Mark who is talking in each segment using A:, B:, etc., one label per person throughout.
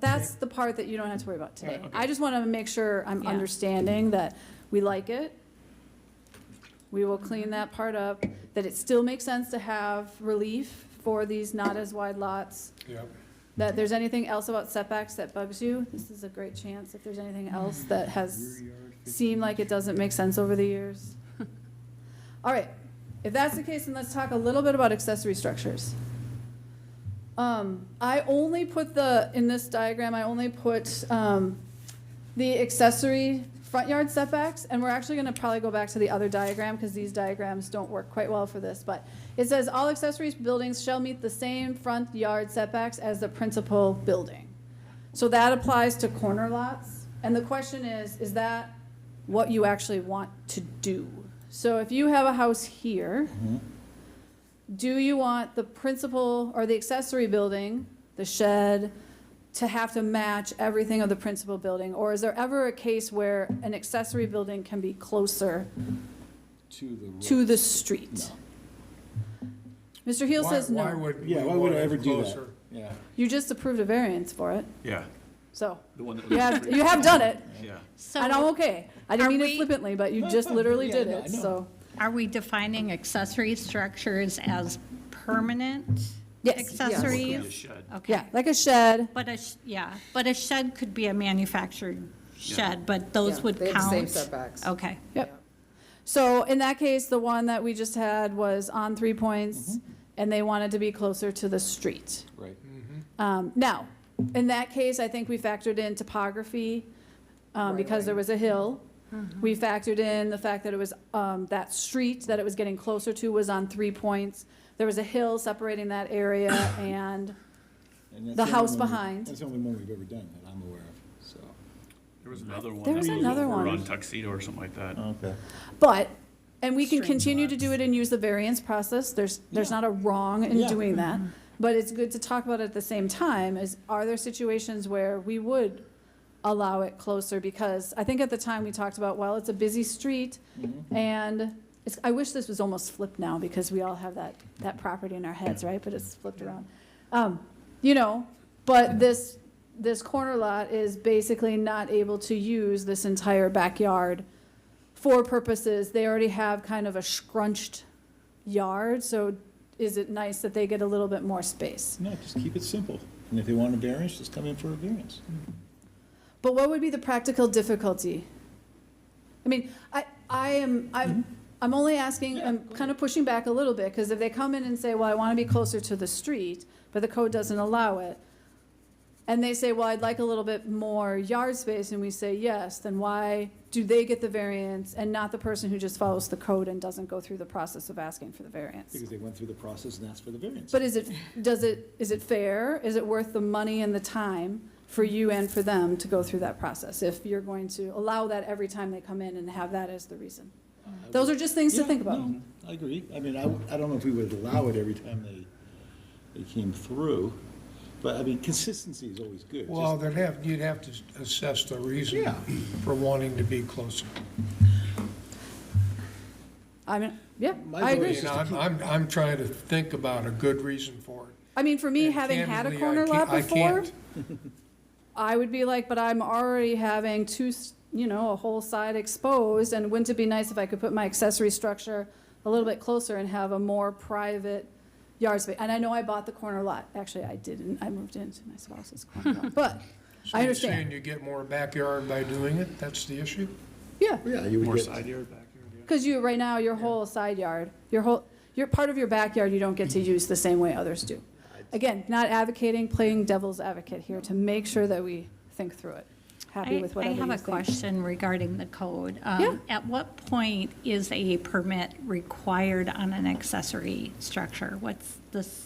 A: that's the part that you don't have to worry about today.
B: Right, okay.
A: I just want to make sure I'm
C: Yeah.
A: understanding that we like it. We will clean that part up, that it still makes sense to have relief for these not as wide lots.
D: Yep.
A: That there's anything else about setbacks that bugs you, this is a great chance. If there's anything else that has seemed like it doesn't make sense over the years. All right, if that's the case, then let's talk a little bit about accessory structures. Um, I only put the, in this diagram, I only put, um, the accessory front yard setbacks, and we're actually gonna probably go back to the other diagram, because these diagrams don't work quite well for this, but it says, all accessory buildings shall meet the same front yard setbacks as the principal building. So that applies to corner lots, and the question is, is that what you actually want to do? So if you have a house here, do you want the principal or the accessory building, the shed, to have to match everything of the principal building? Or is there ever a case where an accessory building can be closer
E: To the.
A: to the street? Mr. Heel says
D: Why
A: no.
D: would we
E: Yeah, why would
D: want
E: I
D: it
E: ever do that?
D: closer?
E: Yeah.
A: You just approved a variance for it,
B: Yeah,
A: so
B: the one that
A: you
B: was,
A: have, you have done it,
B: yeah.
A: and I'm
C: So
A: okay. I didn't
C: Are
A: mean it
C: we-
A: flippantly, but you
E: No,
A: just
E: no,
A: literally
E: yeah,
A: did
E: no, I
A: it,
E: know.
A: so.
C: are we defining accessory structures as permanent
A: Yes.
B: Include a
C: accessories?
B: shed.
C: Okay.
A: Yeah, like a shed,
C: But a, sh- yeah, but a shed could be a manufactured
B: Yeah.
C: shed, but those
F: Yeah,
C: would
F: They have the same
C: count?
F: setbacks.
C: Okay.
A: Yep. So in that case, the one that we just had was on three points,
F: Mm-hmm.
A: and they wanted to be closer to the street.
E: Right.
A: Um, Now, in that case, I think we factored in topography, um,
F: Right,
A: because
F: right. Mm-hmm.
A: there was a hill. We factored in the fact that it was, um, that street that it was getting closer to was on three points. There was a hill separating that area, and
E: And that's
A: The
E: only
A: house
E: one we-
A: behind.
E: That's the only one we've ever done that I'm aware of, so.
B: There was another one.
A: There
B: that
A: was another
B: over
A: one.
B: On Tuxedo or something like that.
E: Okay.
A: But, and we can
C: String
A: continue to do it and use the variance process, there's, there's
E: Yeah.
A: not a wrong in
E: Yeah. Mm-hmm.
A: doing that. But it's good to talk about it at the same time, is are there situations where we would allow it closer? Because I think at the time we talked about, well, it's a busy street,
E: Mm-hmm.
A: and it's, I wish this was almost flipped now, because we all have that, that property in our heads, right? But it's flipped around. Um, you know, but this, this corner lot is basically not able to use this entire backyard for purposes, they already have kind of a scrunched yard, so is it nice that they get a little bit more space?
E: No, just keep it simple. And if they want a variance, just come in for a variance.
A: But what would be the practical difficulty? I mean, I, I am, I'm, I'm only asking, I'm kind of pushing back a little bit, because if they come in and say, well, I want to be closer to the street, but the code doesn't allow it, and they say, well, I'd like a little bit more yard space, and we say yes, then why do they get the variance and not the person who just follows the code and doesn't go through the process of asking for the variance?
E: Because they went through the process and asked for the variance.
A: But is it, does it, is it fair? Is it worth the money and the time for you and for them to go through that process? If you're going to allow that every time they come in and have that as the reason? Those are just things to
E: Yeah,
A: think about.
E: no, I agree. I mean, I, w- I don't know if we would allow it every time they, they came through, but I mean, consistency is always good.
D: Well,
E: Just-
D: they'd have, you'd have to assess the reason
E: Yeah.
D: for wanting to be closer.
A: I mean, yeah,
E: My
A: I
E: vote
A: agree.
D: You know, I'm, I'm, I'm trying to think about a good reason for it.
A: I mean, for me,
D: And
A: having had a
D: candidly, I
A: corner lot
D: can't- I
A: before,
D: can't.
A: I would be like, but I'm already having two, s- you know, a whole side exposed, and wouldn't it be nice if I could put my accessory structure a little bit closer and have a more private yard space? And I know I bought the corner lot, actually, I didn't, I moved into my spouse's corner lot, but,
D: So
A: I
D: you're
A: understand.
D: Saying you get more backyard by doing it, that's the issue?
A: yeah.
E: Yeah, you
B: More
E: would
B: side
E: get,
B: yard, backyard, yeah.
A: Because you, right now, your whole side yard, your whole, your, part of your backyard, you don't get to use the same way others do. Again, not advocating, playing devil's advocate here to make sure that we think through it. Happy
C: I
A: with
C: I
A: whatever you
C: have a
A: think.
C: question regarding the code. Um,
A: Yeah.
C: At what point is a permit required on an accessory structure? What's the size?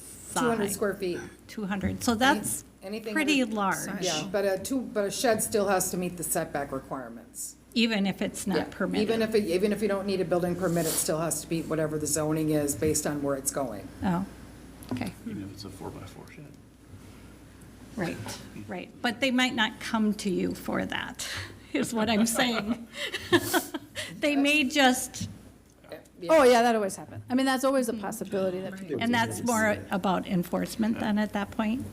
F: 200 square feet.
C: 200, so that's
F: anything
C: pretty
F: under-
C: large,
F: Yeah, but a two, but a shed still has to meet the setback requirements.
C: even if it's
F: Yeah.
C: not permitted.
F: Even if, it- even if you don't need a building permit, it still has to be whatever the zoning is based on where it's going.
C: Oh, okay,
B: Even if it's a four by four shed.
C: right, right. But they might not come to you for that, is what I'm saying. They may just,
A: Oh, yeah, that always happens. I mean, that's always a possibility that people,
C: and that's more about enforcement then at that point?